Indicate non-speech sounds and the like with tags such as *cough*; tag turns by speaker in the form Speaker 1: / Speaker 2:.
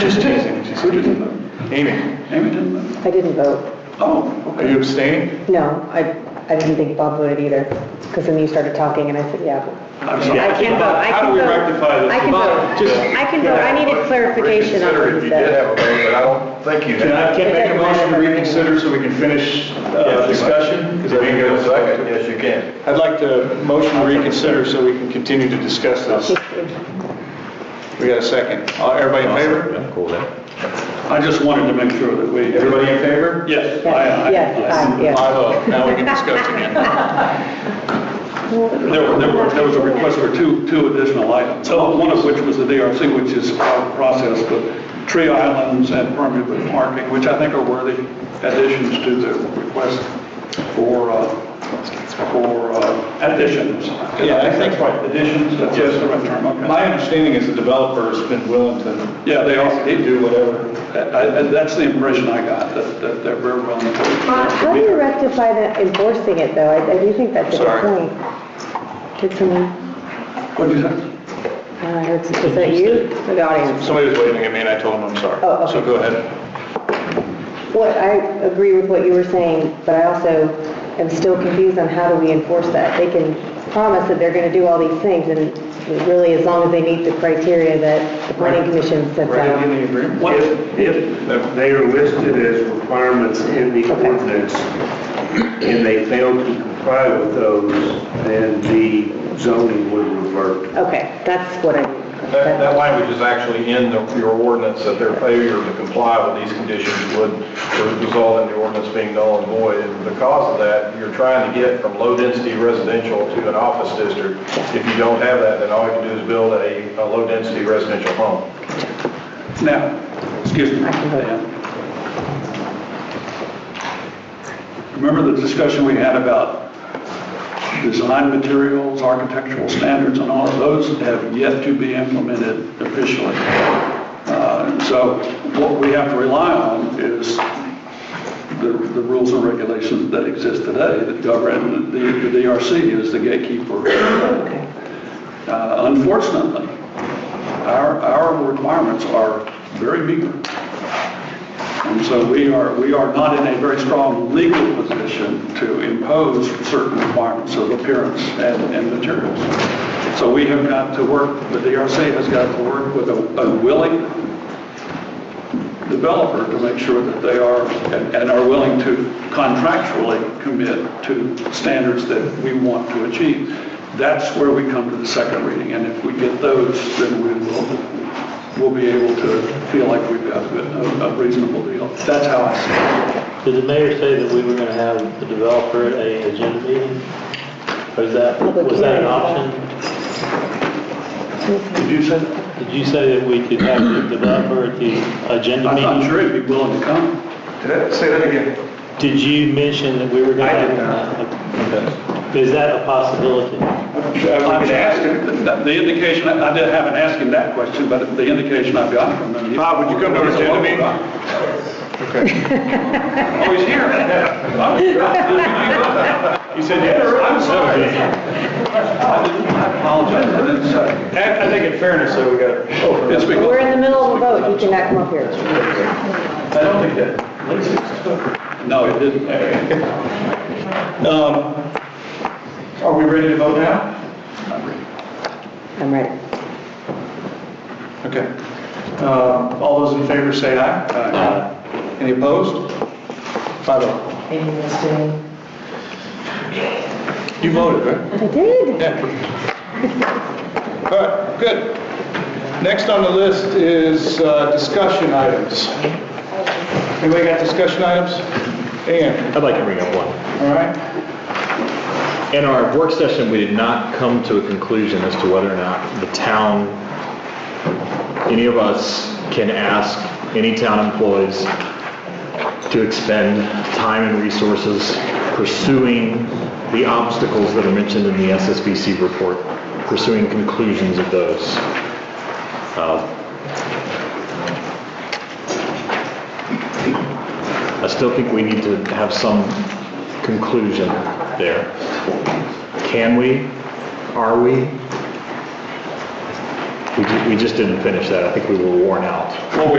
Speaker 1: Just teasing, just
Speaker 2: Who didn't vote?
Speaker 1: Amy,
Speaker 2: Amy didn't vote?
Speaker 3: I didn't vote.
Speaker 2: Oh,
Speaker 1: are
Speaker 2: okay.
Speaker 1: you abstaining?
Speaker 3: No, I, I didn't think Bob voted either, because then you started talking and I said, yeah.
Speaker 2: I'm sorry.
Speaker 3: I can vote, I
Speaker 1: How do
Speaker 3: can
Speaker 1: we
Speaker 3: vote.
Speaker 1: rectify this?
Speaker 3: I can
Speaker 1: Bob,
Speaker 3: vote,
Speaker 1: just-
Speaker 3: I can vote, I needed clarification on what
Speaker 4: Reconsider if
Speaker 3: he
Speaker 4: you did
Speaker 3: said.
Speaker 4: have a vote, but I don't think you
Speaker 1: Can
Speaker 4: did.
Speaker 1: I, can I make a motion to reconsider so we can finish uh, discussion?
Speaker 4: Because
Speaker 1: Because I
Speaker 4: if
Speaker 1: didn't get
Speaker 4: you get
Speaker 1: a
Speaker 4: a second,
Speaker 1: second.
Speaker 4: yes, you can.
Speaker 1: I'd like to motion to reconsider so we can continue to discuss this. We got a second. Uh, Everybody in favor?
Speaker 2: I just wanted to make sure that we.
Speaker 1: Everybody in favor?
Speaker 2: Yes, I, I.
Speaker 3: Yes, aye, yes.
Speaker 1: I vote. Oh, Now we can discuss
Speaker 3: *laughs*
Speaker 1: again.
Speaker 2: There were, there were, there was a request for two, two additional items, one of which was the DRC, which is part of the process, but tree islands and permeable parking, which I think are worthy additions to the request for, uh, for uh, additions.
Speaker 1: Yeah, I think-
Speaker 2: Right, Additions, that's the right term, okay.
Speaker 1: My understanding is the developer's been willing to
Speaker 2: Yeah, they are, they do.
Speaker 1: do whatever.
Speaker 2: I- I- That's the impression I got, that, that they're very well.
Speaker 3: Uh, How do you rectify that enforcing it, though? I I do think that's a good
Speaker 1: Sorry.
Speaker 3: point. Did someone,
Speaker 2: What'd you say?
Speaker 3: uh, I heard, is that you or the audience?
Speaker 1: Somebody was waving at me and I told them I'm sorry.
Speaker 3: Oh, okay.
Speaker 1: So go ahead.
Speaker 3: What, I agree with what you were saying, but I also am still confused on how do we enforce that? They can promise that they're going to do all these things, and really, as long as they meet the criteria that the planning commission sets out.
Speaker 1: the agreement?
Speaker 2: What-
Speaker 5: If, if they are listed as requirements in the ordinance, and they fail to comply with those, then the zoning would revert.
Speaker 3: Okay, that's what I,
Speaker 4: *laughs* That,
Speaker 3: that-
Speaker 4: that language is actually in the- your ordinance, that their failure to comply with these conditions would would result in the ordinance being null and void. And because of that, you're trying to get from low-density residential to an office district. If you don't have that, then all you can do is build a, a low-density residential home.
Speaker 2: Now, excuse me.
Speaker 3: I can vote.
Speaker 2: Dan. Remember the discussion we had about design materials, architectural standards, and all of those have yet to be implemented officially. Uh, So what we have to rely on is the the rules and regulations that exist today that govern, the the DRC is the gatekeeper uh, Unfortunately, our, our requirements are very meager. And so we are, we are not in a very strong legal position to impose certain requirements of appearance and, and materials. So we have got to work, the DRC has got to work with a a willing developer to make sure that they are, and and are willing to contractually commit to standards that we want to achieve. That's where we come to the second reading, and if we get those, then we will, we'll be able to feel like we've got a a reasonable deal. That's how I see it.
Speaker 6: Did the mayor say that we were gonna have the developer at a agenda meeting? Or is that, was that an option?
Speaker 2: Did you say that?
Speaker 6: Did you say that we could have the developer at the agenda
Speaker 2: I'm not
Speaker 6: meeting?
Speaker 2: sure he'd be willing to come.
Speaker 4: Say that again.
Speaker 6: Did you mention that we were gonna? I did not. Is that a possibility?
Speaker 2: I'm asking, the- the indication, I I didn't- haven't asked him that question, but the indication I've gotten from him.
Speaker 1: Bob, Ah, would you come to our agenda meeting?
Speaker 2: Oh, he's here.
Speaker 1: He said yes.
Speaker 2: I'm sorry. I apologize, I didn't say.
Speaker 1: I I think in fairness, though, we got to
Speaker 2: Yes, we
Speaker 3: we're in the middle of a vote, you cannot come up here.
Speaker 1: I don't think that.
Speaker 2: No, it didn't.
Speaker 1: Um, Are we ready to vote now?
Speaker 3: I'm ready.
Speaker 1: Okay. Uh, All those in favor say aye. Any opposed? Five oh.
Speaker 3: Amy was doing.
Speaker 1: You voted, right?
Speaker 3: I did.
Speaker 1: Yeah. All right, good. Next on the list is uh, discussion items. Anybody got discussion items? Dan,
Speaker 7: I'd like to bring up one.
Speaker 1: all right?
Speaker 7: In our work session, we did not come to a conclusion as to whether or not the town, any of us can ask any town employees to expend time and resources pursuing the obstacles that are mentioned in the SSBC report, pursuing conclusions of those. Uh, I still think we need to have some conclusion there. Can we? Are we? We ju- We just didn't finish that. I think we were worn out.
Speaker 2: Well, we